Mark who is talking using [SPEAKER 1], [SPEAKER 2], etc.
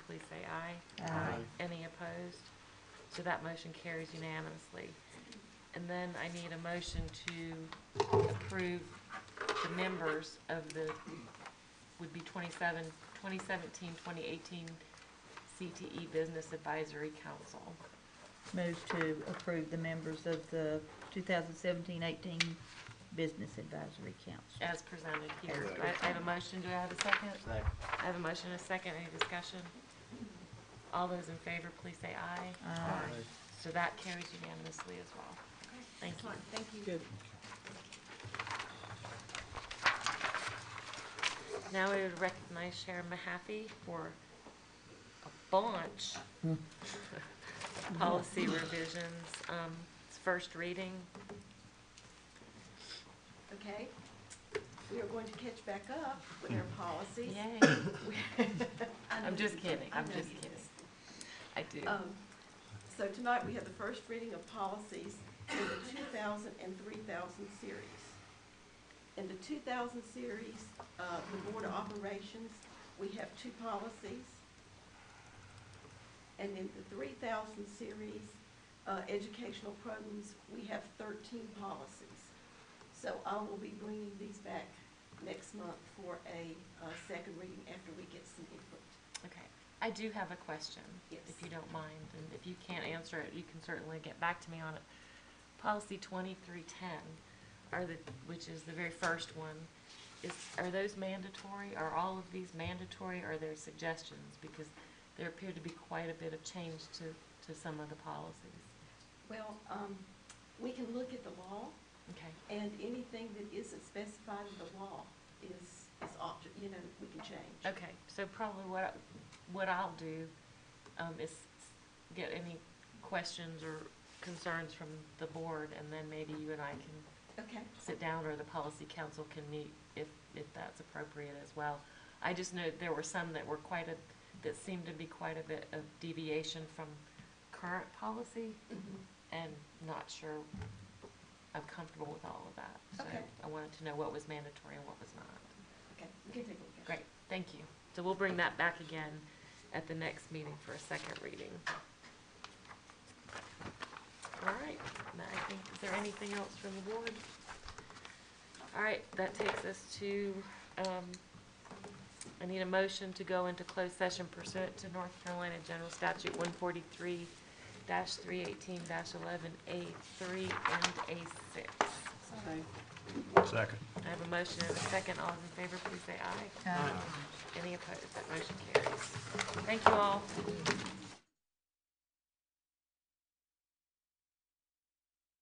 [SPEAKER 1] please say aye.
[SPEAKER 2] Aye.
[SPEAKER 1] Any opposed? So that motion carries unanimously. And then I need a motion to approve the members of the, would be 27, 2017, 2018 CTE E Business Advisory Council.
[SPEAKER 2] Move to approve the members of the 2017-18 Business Advisory Council.
[SPEAKER 1] As presented here.
[SPEAKER 2] As
[SPEAKER 1] Do I I have a motion, do I have a second? I have a motion and a second, any discussion? All those in favor, please say aye.
[SPEAKER 2] Aye.
[SPEAKER 1] So that carries unanimously as well. Thank you.
[SPEAKER 3] Thank you.
[SPEAKER 1] Now we would recognize Sharon Mahaffey for a bunch of policy revisions, um, it's first reading.
[SPEAKER 3] Okay, we are going to catch back up with our policies. I
[SPEAKER 1] I'm
[SPEAKER 3] know
[SPEAKER 1] just
[SPEAKER 3] you-
[SPEAKER 1] kidding,
[SPEAKER 3] I
[SPEAKER 1] I'm
[SPEAKER 3] know
[SPEAKER 1] just
[SPEAKER 3] you
[SPEAKER 1] kidding.
[SPEAKER 3] do.
[SPEAKER 1] I do.
[SPEAKER 3] Um, So tonight, we have the first reading of policies in the 2000 and 3000 series. In the 2000 series, uh, the Board of Operations, we have two policies. And in the 3000 series, uh, educational programs, we have 13 policies. So I will be bringing these back next month for a uh, second reading after we get some input.
[SPEAKER 1] Okay, I do have a question,
[SPEAKER 3] Yes.
[SPEAKER 1] if you don't mind, and if you can't answer it, you can certainly get back to me on it. Policy twenty-three ten, are the, which is the very first one, is, are those mandatory? Are all of these mandatory, or are there suggestions? Because there appeared to be quite a bit of change to, to some of the policies.
[SPEAKER 3] Well, um, we can look at the law,
[SPEAKER 1] Okay,
[SPEAKER 3] and anything that isn't specified in the law is, is opt, you know, we can change.
[SPEAKER 1] okay, so probably what, I- what I'll do, um, is get any questions or concerns from the board, and then maybe you and I can
[SPEAKER 3] Okay,
[SPEAKER 1] sit down or the policy council can meet if, if that's appropriate as well. I just know there were some that were quite a, that seemed to be quite a bit of deviation from current policy and not sure I'm comfortable with all of that. So
[SPEAKER 3] Okay.
[SPEAKER 1] I wanted to know what was mandatory and what was not.
[SPEAKER 3] okay, we can take a look at it.
[SPEAKER 1] Great, thank you. So we'll bring that back again at the next meeting for a second reading. All right, now I think, is there anything else from the board? All right, that takes us to, um, I need a motion to go into closed session pursuant to North Carolina General Statute one forty-three three eighteen eleven A three and A six.
[SPEAKER 4] Second.
[SPEAKER 1] I have a motion and a second. All in favor, please say aye.
[SPEAKER 2] Aye.
[SPEAKER 1] Any opposed? That motion carries. Thank you all.